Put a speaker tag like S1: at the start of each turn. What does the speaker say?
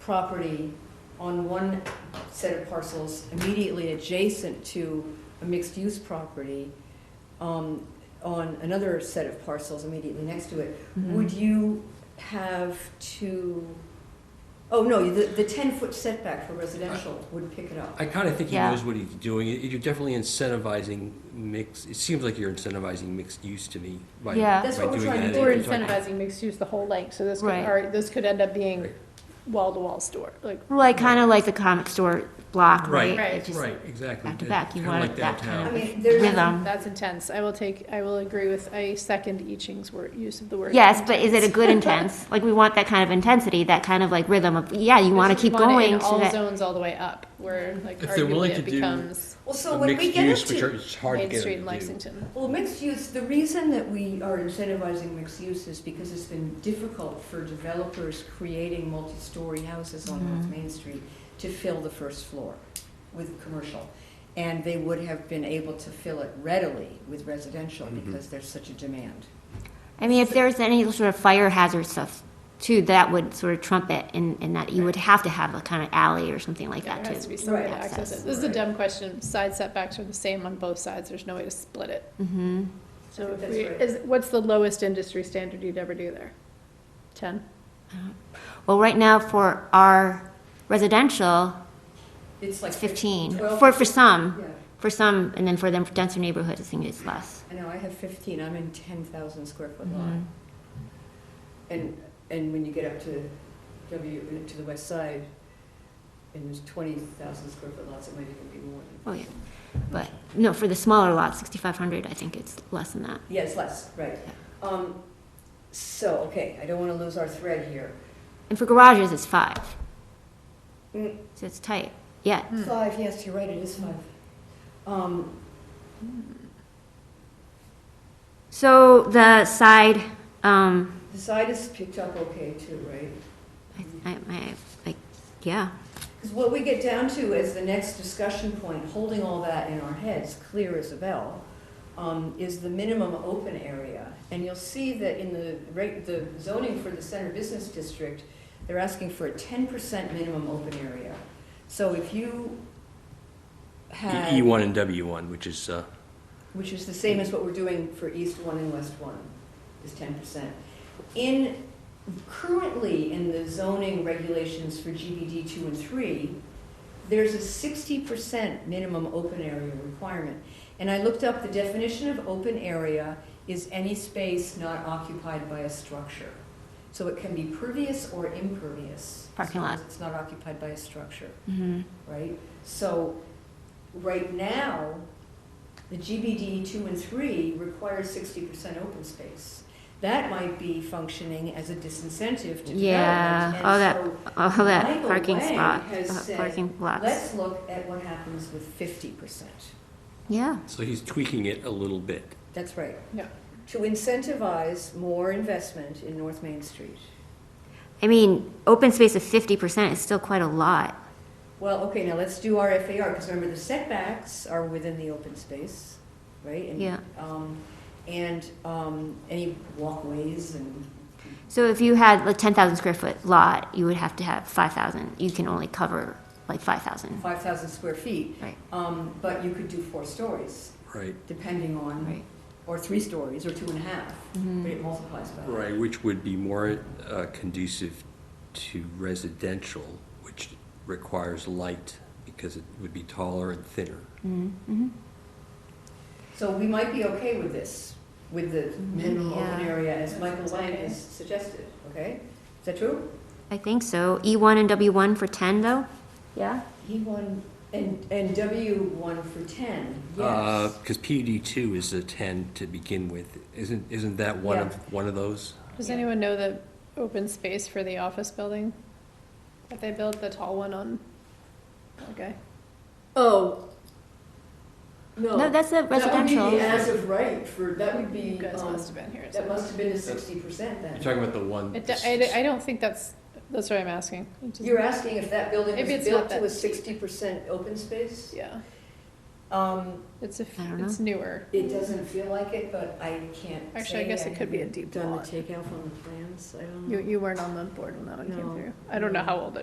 S1: property on one set of parcels immediately adjacent to a mixed-use property um, on another set of parcels immediately next to it,
S2: Mm-hmm.
S1: would you have to, oh, no, the, the ten-foot setback for residential would pick it up.
S3: I kind of think he
S2: Yeah.
S3: knows what he's doing. You- You're definitely incentivizing mix, it seems like you're incentivizing mixed use to me by by doing
S2: Yeah.
S3: that.
S1: That's what we're trying to do.
S4: We're
S3: and talking-
S4: incentivizing mixed use the whole length, so this could,
S2: Right.
S4: all right, this could end up being
S3: Right.
S4: wall-to-wall store, like,
S2: Like, kind of like the comic store block, right?
S3: Right,
S4: Right.
S2: It just-
S3: Right, exactly.
S2: back to back, you
S3: Kinda like
S2: wanted that kind
S1: I
S3: downtown.
S1: mean, there's.
S2: Rhythm.
S4: that's intense. I will take, I will agree with, I second Eaching's word, use of the word.
S2: Yes, but is it a
S4: intense.
S2: good intense? Like, we want that kind of intensity, that kind of like rhythm of, yeah, you want to
S4: Because we
S2: keep
S4: want it
S2: going
S4: in
S2: so
S4: all
S2: that.
S4: zones all the way up, where like
S3: If they're willing
S4: arguably
S3: to
S4: it
S3: do
S4: becomes
S1: Well, so
S3: The
S1: when we
S3: mixed
S1: get
S3: use,
S1: up
S3: which
S1: to-
S3: are- it's hard to
S4: Main
S3: get
S4: Street in
S3: them to do.
S4: Lexington.
S1: Well, mixed use, the reason that we are incentivizing mixed use is because it's been difficult for developers creating multi-story houses on North
S2: Mhm.
S1: Main Street to fill the first floor with commercial. And they would have been able to fill it readily with residential
S3: Mhm.
S1: because there's such a demand.
S2: I mean, if there's any sort of fire hazard stuff too, that would sort of trump it in, in that you would have to have a kind of alley or something like
S4: Yeah,
S2: that
S4: There has to
S2: too.
S4: be some way to
S2: Right.
S4: access it. This is a
S1: Right.
S4: dumb question. Side setbacks are the same on both sides. There's no way to split it.
S2: Mm-hmm.
S4: So if
S1: That's
S4: we,
S1: right.
S4: is, what's the lowest industry standard you'd ever do there? Ten?
S2: Well, right now for our residential,
S1: It's like
S2: it's fifteen,
S1: Twelve-
S2: for, for some,
S1: Yeah,
S2: for some, and then for them denser neighborhoods, I think it's less.
S1: I know, I have fifteen, I'm in ten thousand square foot lot.
S2: Mhm.
S1: And, and when you get up to W, to the west side, and there's twenty thousand square foot lots, it might even be more than.
S2: Oh, yeah. But, no, for the smaller lots, sixty-five hundred, I think it's less than that.
S1: Yeah, it's less, right. Um, so, okay, I don't wanna lose our thread here.
S2: And for garages, it's five.
S1: Mm.
S2: So it's tight, yeah.
S4: Hmm.
S1: Five, yes, you're right, it is five. Um,
S2: So the side, um,
S1: the side is picked up okay too, right?
S2: I, I, I, like, yeah,
S1: Because what we get down to is the next discussion point, holding all that in our heads, clear as a bell, um, is the minimum open area. And you'll see that in the rate, the zoning for the center business district, they're asking for a ten percent minimum open area. So if you had.
S3: E one and W one, which is, uh,
S1: which is the same as what we're doing for East One and West One, is ten percent. In, currently in the zoning regulations for GBD two and three, there's a sixty percent minimum open area requirement. And I looked up, the definition of open area is any space not occupied by a structure. So it can be pervious or impervious.
S2: Parking lot.
S1: as long as It's not occupied by a structure
S2: hmm
S1: right? So, right now, the GBD two and three requires sixty percent open space. That might be functioning as a disincentive to development.
S2: Yeah,
S1: and
S2: all that-
S1: so
S2: all that
S1: Michael
S2: parking
S1: Wang
S2: spot,
S1: has
S2: uh,
S1: said,
S2: parking lots.
S1: Let's look at what happens with fifty percent.
S2: Yeah,
S3: so he's tweaking it a little bit.
S1: That's right.
S4: Yeah.
S1: To incentivize more investment in North Main Street.
S2: I mean, open space of fifty percent is still quite a lot.
S1: Well, okay, now let's do our FAR, because remember, the setbacks are within the open space, right? And,
S2: Yeah.
S1: um, And um, any walkways and,
S2: So if you had like ten thousand square foot lot, you would have to have five thousand, you can only cover like five thousand.
S1: 5,000 square feet.
S2: Right.
S1: Um, But you could do four stories,
S3: Right,
S1: depending on,
S2: Right.
S1: or three stories, or two and a half, but
S2: Mhm.
S1: it multiplies by. that.
S3: right, which would be more uh, conducive to residential, which requires light because it would be taller and thinner.
S2: Mhm. Mhm.
S1: So we might be okay with this, with the minimum open
S2: Mm-hmm. Yeah.
S1: area, as Michael
S4: Sounds
S1: Lang
S4: okay.
S1: has suggested, okay? Is that true?
S2: I think so. E one and W one for ten though? Yeah.
S1: He won, and, and W won for 10,
S3: Uh,
S1: yes.
S3: Because PUD E two is a ten to begin with. Isn't, isn't that one of, one of those?
S4: Does
S1: Yeah.
S4: anyone know the open space for the office building? That they built, the tall one on, okay.
S1: Oh.
S2: No, that's a
S1: That would be the
S2: residential.
S1: as of right for, that would
S4: You
S1: be,
S4: guys
S1: um,
S4: must have been here.
S1: that
S4: so-
S1: must have been the sixty percent
S3: You're
S1: then.
S3: talking about the one.
S4: It, do- I, I don't think that's, that's what I'm asking. It doesn't-
S1: You're asking if that building
S4: Maybe
S1: was
S4: it's not
S1: built to
S4: that
S1: a
S4: steep.
S1: sixty percent open space?
S4: Yeah,
S1: Um,
S4: it's a,
S2: I don't
S4: it's newer.
S1: it doesn't feel like it, but I can't
S4: Actually, I
S1: say
S4: guess it could be a
S1: haven't
S4: deep
S1: Done the
S4: lot.
S1: takeoff on the plans, I don't know.
S4: You, you weren't on the board when that one came
S1: No.
S4: through. I don't know
S1: No.
S4: how old